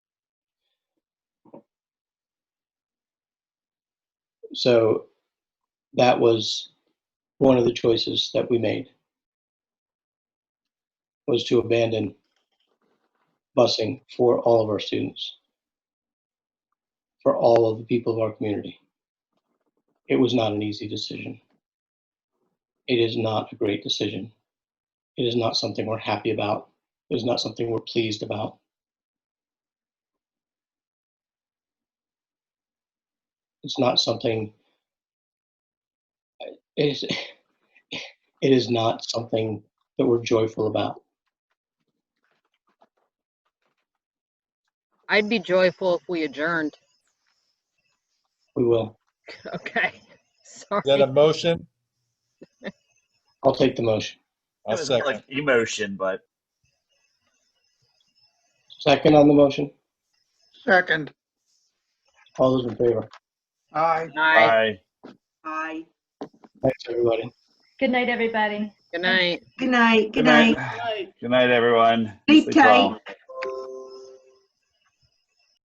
So that was one of the choices that we made was to abandon busing for all of our students, for all of the people of our community. It was not an easy decision. It is not a great decision. It is not something we're happy about. It is not something we're pleased about. It's not something, it is, it is not something that we're joyful about. I'd be joyful if we adjourned. We will. Okay. Is that a Sorry. motion? I'll take the motion. I'll That was more second. like Emotion, but Second on the motion. Second, All those in favor? aye. Bye. I, Aye. Thanks, everybody. Good night, everybody. Good night. Good night, Good good night. good night, everyone. Sleep Sleep tight. well.